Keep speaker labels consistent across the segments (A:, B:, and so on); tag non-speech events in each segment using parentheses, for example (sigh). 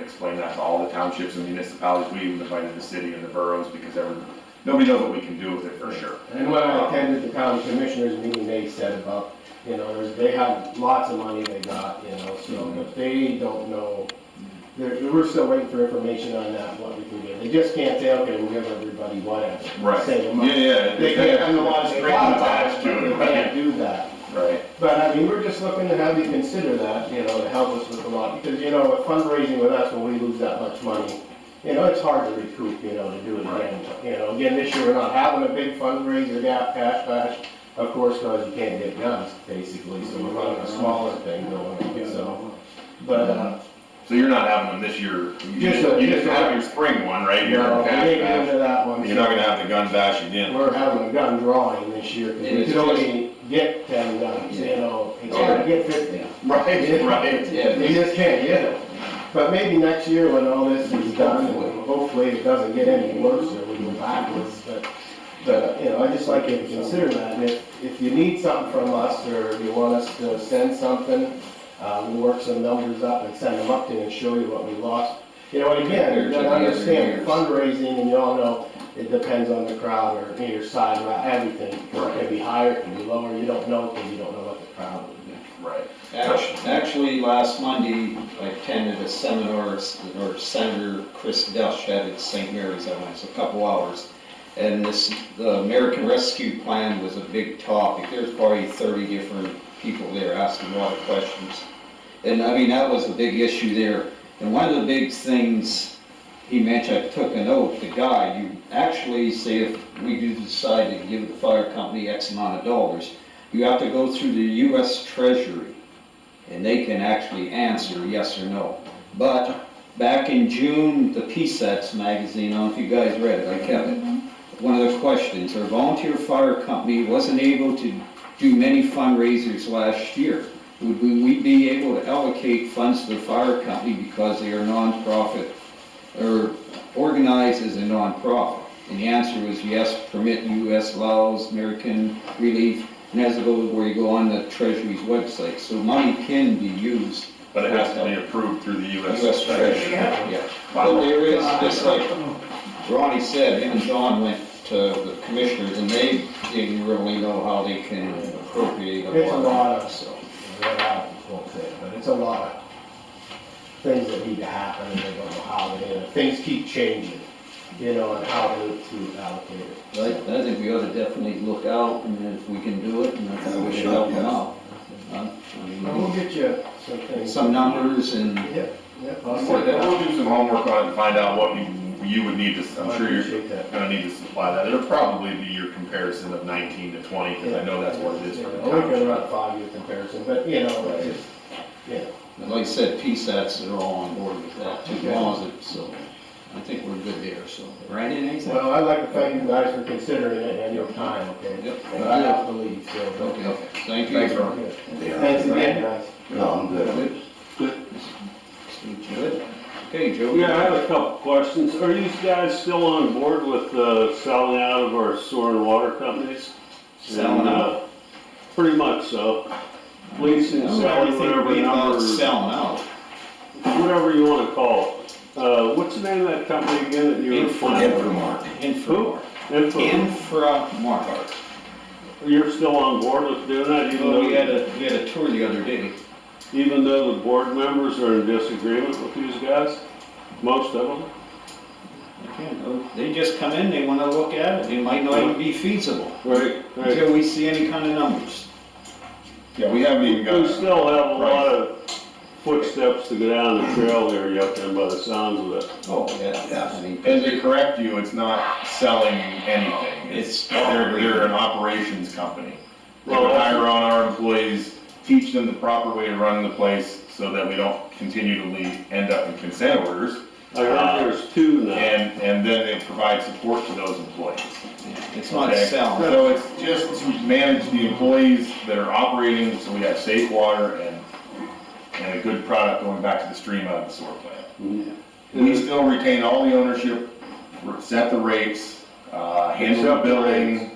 A: explain that to all the townships and municipalities, we even invited the city and the boroughs, because everyone, nobody knows what we can do with it for sure.
B: And when I attended the county commissioners meeting, they said about, you know, there's- they have lots of money they got, you know, so,
C: Mm-hmm.
B: but they don't know. They're, we're still waiting for information on that, what we can give. They just can't say, okay, we'll give everybody whatever.
A: Right.
B: Same
C: Yeah,
B: amount.
C: yeah.
B: They can't,
C: yeah.
B: I'm the one that's
A: Straight
B: attached
A: attached
B: to
A: to
B: it,
A: it,
B: they
A: right.
B: can't do that.
A: Right.
B: But I mean, we're just looking to have you consider that, you know, to help us with the lot, because, you know, with fundraising with us, when we lose that much money, you know, it's hard to recoup, you know, to do it again. You know, again, this year, we're not having a big fundraiser, gap, cash bash, of course, because you can't get guns, basically, so we're running a smaller thing going, so. But, uh,
A: So you're not having them this year, you
B: Just a-
A: just, you just
B: just a-
A: have your spring one right
B: you
A: here.
B: know, we
A: Cash
B: didn't get
A: bash.
B: into that one.
C: You're not gonna have the gun bash again.
B: We're having a gun drawing this year, because
D: And
B: we
D: it's
B: could only get ten guns, you know, it's hard to get fifty.
A: (laughs) Right, (laughs) right.
B: You
D: Yeah,
B: just can't get it. But maybe next year when all this is done, and hopefully it doesn't get any worse or we go backwards, but, but, you know, I just like you to consider that. And if, if you need something from us or you want us to send something, uh, we'll work some numbers up and send them up to you and show you what we lost. You know, and again, you gotta understand fundraising and you all know it depends on the crowd or your side, or everything. It can be higher, it can be lower, you don't know because you don't know what the crowd will do.
A: Right.
D: Act- actually, last Monday, I attended a seminar, or Senator Chris Dush had at St. Mary's, I went, it's a couple hours. And this, the American Rescue Plan was a big topic, there's probably thirty different people there asking a lot of questions. And I mean, that was a big issue there, and one of the big things he mentioned, I took a note, the guy, you actually say if we do decide to give the fire company X amount of dollars, you have to go through the US Treasury and they can actually answer yes or no. But back in June, the PSATS magazine, I don't know if you guys read it, I kept it. One of the questions, our volunteer fire company wasn't able to do many fundraisers last year. Would we we be able to allocate funds to the fire company because they are nonprofit or organized as a nonprofit? And the answer was yes, permit US laws, American Relief, and as it goes where you go on the Treasury's website. So money can be used.
C: But it has to be approved through the
D: US
C: US
D: Treasury,
C: Treasury.
D: yeah. But there is, just like Ronnie said, him and John went to the commissioners and they didn't really know how they can appropriate a lot.
B: It's a lot of-
D: so.
B: red out, won't say it, but it's a lot of things that need to happen, and they don't know how, they- and things keep changing, you know, and how to, to allocate it.
D: But I, I think we ought to definitely look out and if we can do it and if we can help them out. Uh, I
B: And we'll
D: mean,
B: get you some things.
D: Some numbers and,
B: Yep, yep, I'll
A: We'll
B: say that.
A: we'll do some homework on it and find out what you, you would need to, I'm
B: I
A: sure you're
B: appreciate that.
A: gonna need to supply that. It'll probably be your comparison of nineteen to twenty, because I know that's what it is for the
B: Yeah, We can run
A: township.
B: a five-year comparison, but, you know, it's just, you know,
D: like I said, PSATs are all on board with that, too, as long as it, so. I think we're good there, so. Randy, anything?
B: well, I'd like to thank you guys for considering it and your time, okay?
D: Yep.
B: But I have to leave, so.
D: Okay, thank you.
A: Thanks, Ron.
B: Okay. Thanks again, guys.
E: No, I'm good.
D: Good. Good. Okay, Joe.
F: Yeah, I have a couple questions. Are you guys still on board with uh, selling out of our sewer and water companies?
D: Selling
F: And, uh,
D: out?
F: Pretty much so. Leasing, selling, whatever
D: Everything about
F: number,
D: Selling out.
F: whatever you want to call it. Uh, What's the name of that company again that you were
D: Infra-
F: funding?
E: Infomart.
D: Infra.
F: Info.
D: Inframark.
F: You're still on board with doing that even
D: Well, Oh, we had
F: though,
D: a, we had a tour the other day.
F: even though the board members are in disagreement with these guys? Most of them?
D: Again, They just come in, they wanna look at it, it might not even be feasible
F: Right, right.
D: until we see any kind of numbers.
C: Yeah, we haven't even
F: We
C: got,
F: still have a lot of footsteps to go down the trail there yet, then by the sounds of it.
D: Oh, yeah. I mean,
C: as they correct you, it's not selling anything.
D: It's-
C: They're, they're an operations company. They
F: Well,
C: would
F: that's-
C: hire on our employees, teach them the proper way to run the place so that we don't continually end up in consent orders.
F: I
C: Uh,
F: heard there's two now.
C: And, and then they provide support to those employees.
D: It's not
C: Okay?
D: selling.
C: So it's just to manage the employees that are operating, so we have safe water and, and a good product going back to the stream out of the sewer plant.
F: Mm-hmm.
C: We still retain all the ownership, set the rates, uh, handle the
F: Accept the
C: billing,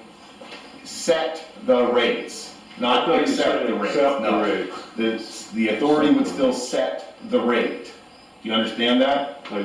C: set the rates,
F: I
C: not
F: thought you
C: accept
F: said
C: the rates,
F: Accept the
C: no.
F: rates.
C: The, the authority would still set the rate. Do you understand that?